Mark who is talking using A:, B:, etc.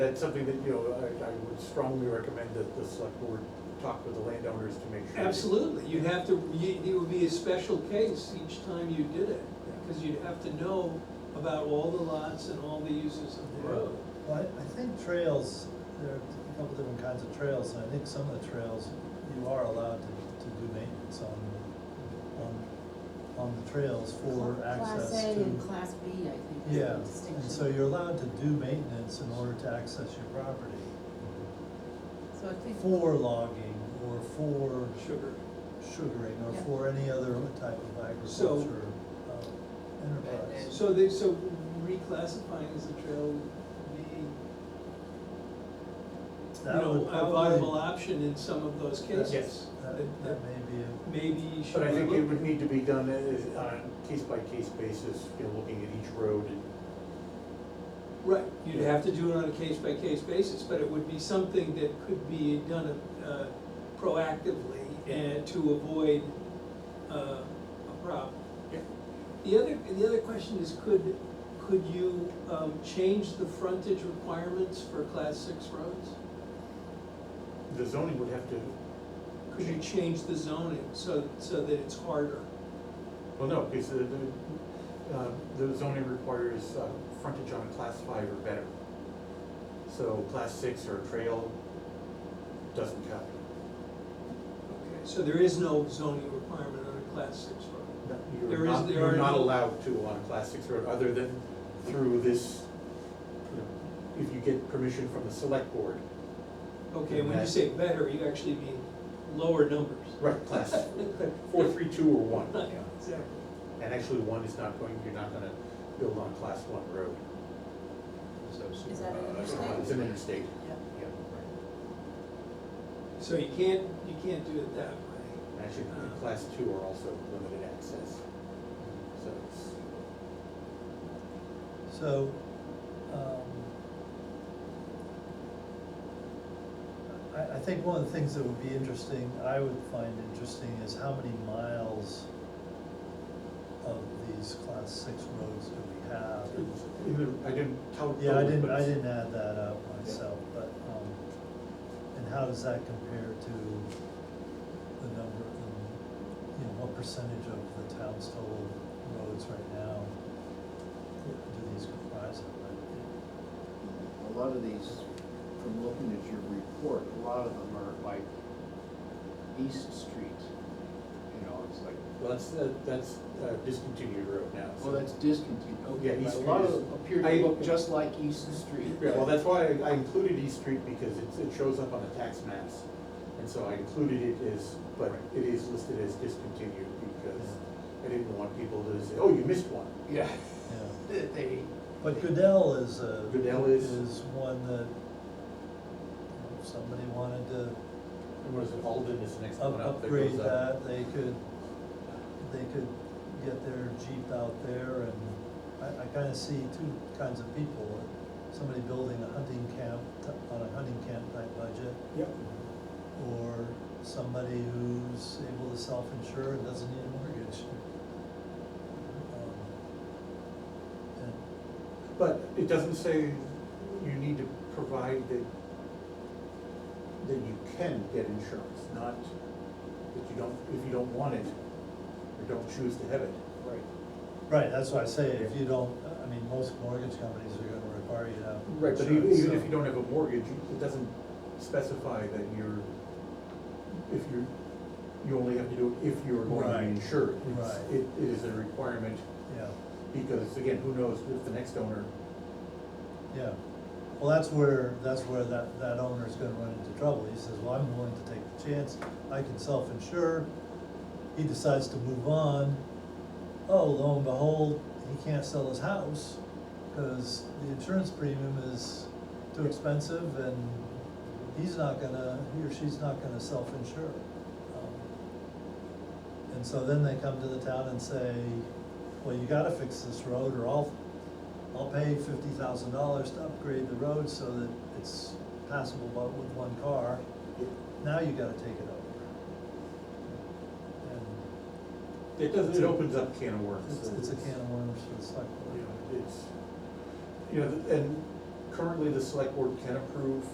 A: That's something that, you know, I, I would strongly recommend that the select board talk with the landowners to make sure.
B: Absolutely, you'd have to, you, it would be a special case each time you did it, because you'd have to know about all the lots and all the uses of the road.
C: Well, I- I think trails, there are a couple different kinds of trails, and I think some of the trails, you are allowed to, to do maintenance on, on, on the trails for access
D: Class A and
C: to.
D: Class B, I think, is
C: Yeah,
D: the
C: and so
D: distinction.
C: you're allowed to do maintenance in order to access your property
D: So I think,
C: for logging or for
B: Sugar.
C: sugaring or
D: Yeah.
C: for any other type of
B: So-
C: agriculture uh, enterprise.
B: So they, so reclassifying as a trail would be, you
C: That
B: know,
C: would
B: a
C: probably-
B: viable option in some of those
C: Yes.
B: cases.
C: That,
B: That-
C: that
B: that
C: may be a.
B: Maybe should.
A: But I think
B: look
A: it would
B: at.
A: need to be done as- on a case-by-case basis, you know, looking at each road and.
B: Right, you'd have to do it on a case-by-case basis, but it would be something that could be done uh, proactively and to avoid uh, a problem.
A: Yeah.
B: The other, the other question is, could, could you um, change the frontage requirements for class six roads?
A: The zoning would have to,
B: Could you change the zoning so, so that it's harder?
A: well, no, because the, the, uh, the zoning requires uh, frontage on a class five or better. So class six or trail doesn't count.
B: Okay, So there is no zoning requirement on a class six road?
A: No,
B: There
A: You're
B: is-
A: not,
B: there
A: you're
B: are
A: not
B: no-
A: allowed to on a class six road, other than through this, you know, if you get permission from the select board.
B: Okay, when you say better, you actually mean lower numbers.
A: Right, class four, three, two, or one.
B: Yeah, exactly.
A: And actually, one is not going, you're not gonna build on class one road.
D: Is that an
A: Uh, It's
D: interstate?
A: an interstate.
D: Yeah.
A: Yeah.
B: So you can't, you can't do it that way.
A: And Actually, in class two are also limited access. So it's,
C: So, um, I, I think one of the things that would be interesting, I would find interesting, is how many miles of these class six roads do we have?
A: it's in the- I didn't tell.
C: Yeah, I
A: but
C: didn't, I
A: it's-
C: didn't add that up myself, but, um, and how does that compare to the number, um, you know, what percentage of the town's total roads right now do these comprise of, right?
E: A lot of these, from looking at your report, a lot of them are like East Street, you know, it's like,
A: Well, that's, uh, that's uh, discontinued road now. so-
E: well, that's discontinued,
A: Oh, Yeah, East
E: okay, but a
A: Street
E: lot of
A: is-
E: them appear
A: I-
E: to look just like East Street.
A: Yeah, well, that's why I- I included East Street, because it's, it shows up on the tax maps. And so I included it as, but it is listed as discontinued, because I didn't want people to say, oh, you missed one.
E: Yeah.
C: Yeah.
E: They,
C: But Goodell is a.
A: Goodell is-
C: one that, you know, if somebody wanted to
A: And what is it, Alden is the next
C: up-
A: one up that
C: upgrade
A: goes up.
C: that, they could, they could get their Jeep out there and I, I kinda see two kinds of people. Somebody building a hunting camp, t- on a hunting camp type budget,
A: Yep.
C: or somebody who's able to self-insure and doesn't need a mortgage. Um, And
A: But it doesn't say you need to provide that, that you can get insurance, not that you don't, if you don't want it, or don't choose to have it.
E: right,
C: Right, that's why I say, if you don't, I mean, most mortgage companies are gonna require you to have.
A: Right, but even,
C: insurance,
A: even if
C: so-
A: you don't have a mortgage, it doesn't specify that you're, if you're, you only have to do it if you're going to be
C: Right.
A: insured. It's-
C: Right.
A: It, it is a requirement,
C: Yeah,
A: because again, who knows if the next owner,
C: yeah, well, that's where, that's where that, that owner's gonna run into trouble, he says, well, I'm willing to take the chance, I can self-insure. He decides to move on, oh, lo and behold, he can't sell his house, cause the insurance premium is too expensive and he's not gonna, he or she's not gonna self-insure. Um, And so then they come to the town and say, well, you gotta fix this road or I'll, I'll pay fifty thousand dollars to upgrade the road so that it's passable but with one car. Now you gotta take it over. And
A: it doesn't, it opens up a can of worms.
C: it's, it's a can of worms for the select board.
A: You know, it's, you know, and currently the select board can approve